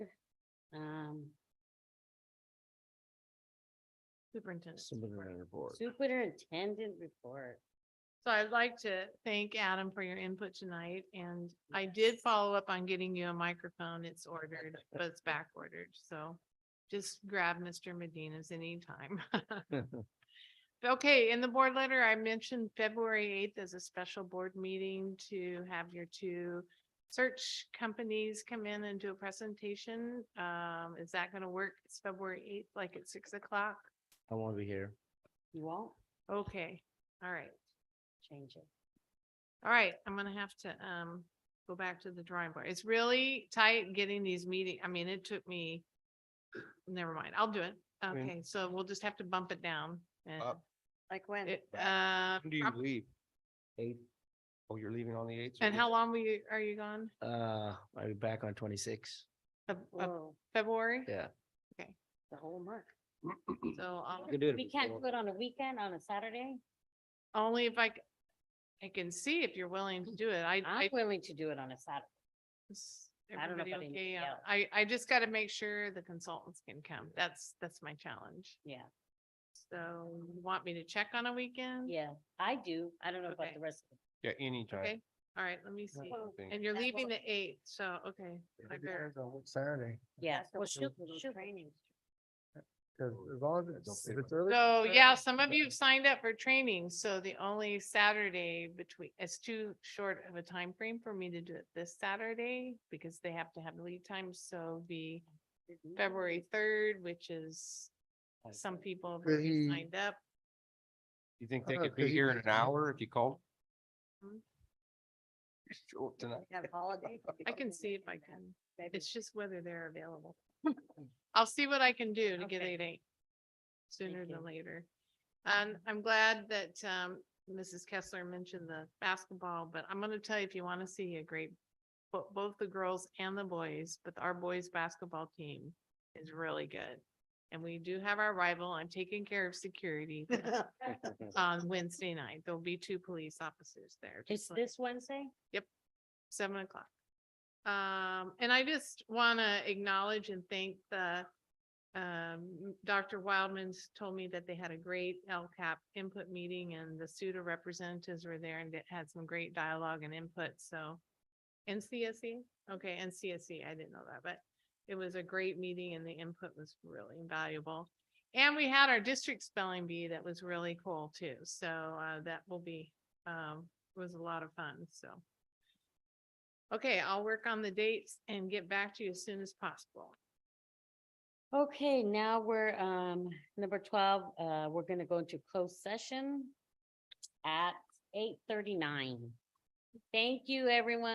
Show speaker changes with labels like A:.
A: Um,
B: Superintendent.
C: Superintendent report.
A: Superintendent report.
B: So I'd like to thank Adam for your input tonight, and I did follow up on getting you a microphone. It's ordered, but it's back ordered, so just grab Mr. Medina's anytime. Okay, in the board letter, I mentioned February eighth as a special board meeting to have your two search companies come in and do a presentation. Um, is that gonna work? It's February eighth, like at six o'clock?
C: I want to be here.
A: You won't
B: Okay, all right.
A: change it.
B: All right, I'm gonna have to, um, go back to the drawing board. It's really tight getting these meeting, I mean, it took me. Never mind, I'll do it.
C: mean-
B: Okay, so we'll just have to bump it down and
C: Up.
A: Like when?
B: it, uh,
C: When do you
B: prob-
C: leave? Eight. Oh, you're leaving on the eighth?
B: and how long were you, are you gone?
C: Uh, I'll be back on twenty-six.
B: Of, of
A: Whoa,
B: February?
C: Yeah.
A: the whole month.
B: So um, I'll,
C: could do it
A: We can't
C: before.
A: do it on a weekend, on a Saturday?
B: only if I, c- I can see if you're willing to do it. I,
A: I'm
B: I.
A: willing to do it on a Saturday.
B: is
A: I don't know
B: everybody
A: about
B: okay?
A: anybody
B: Yeah,
A: else.
B: I, I just gotta make sure the consultants can come. That's, that's my challenge.
A: Yeah,
B: So you want me to check on a weekend?
A: yeah, I do. I don't know about
B: Okay.
A: the rest. of
C: Yeah, anytime.
B: Okay. All right, let me see.
A: Well,
C: Thank
B: And you're
A: that
B: leaving the
A: will-
B: eighth, so, okay. I better-
C: Saturday,
A: it. Yeah,
D: That's
A: well,
D: what
A: shoot,
D: those
A: shoot.
C: because as long as
D: it's-
C: if it's early.
B: So, yeah, some of you have signed up for training, so the only Saturday between, it's too short of a time frame for me to do it this Saturday because they have to have lead time, so the February third, which is some people have already
C: he-
B: signed up.
C: You think
D: I
C: they
D: don't know,
C: could be
D: could you
C: here in
D: just-
C: an hour if you called?
B: Hmm?
C: Sure, tonight.
A: Have holiday.
B: I can see if I can,
A: Maybe.
B: it's just whether they're available. I'll see what I can do to get
A: Okay.
B: it eight sooner than
A: you.
B: later. And I'm glad that um Mrs. Kessler mentioned the basketball, but I'm gonna tell you, if you wanna see a great, bo- both the girls and the boys, but our boys' basketball team is really good. And we do have our rival. I'm taking care of security on Wednesday night. There'll be two police officers there.
A: It's
B: just like-
A: this Wednesday?
B: seven o'clock. Um, and I just want to acknowledge and thank the, um, Dr. Wildman's told me that they had a great LCAP input meeting and the SUDA representatives were there and it had some great dialogue and input, so. NCSE, E, okay, NCSE, E, I didn't know that, but it was a great meeting and the input was really invaluable. And we had our district spelling bee that was really cool too, so, uh, that will be, um, was a lot of fun, so. Okay, I'll work on the dates and get back to you as soon as possible.
A: Okay, now we're, um, number twelve, uh, we're gonna go into closed session at eight thirty-nine. Thank you, everyone.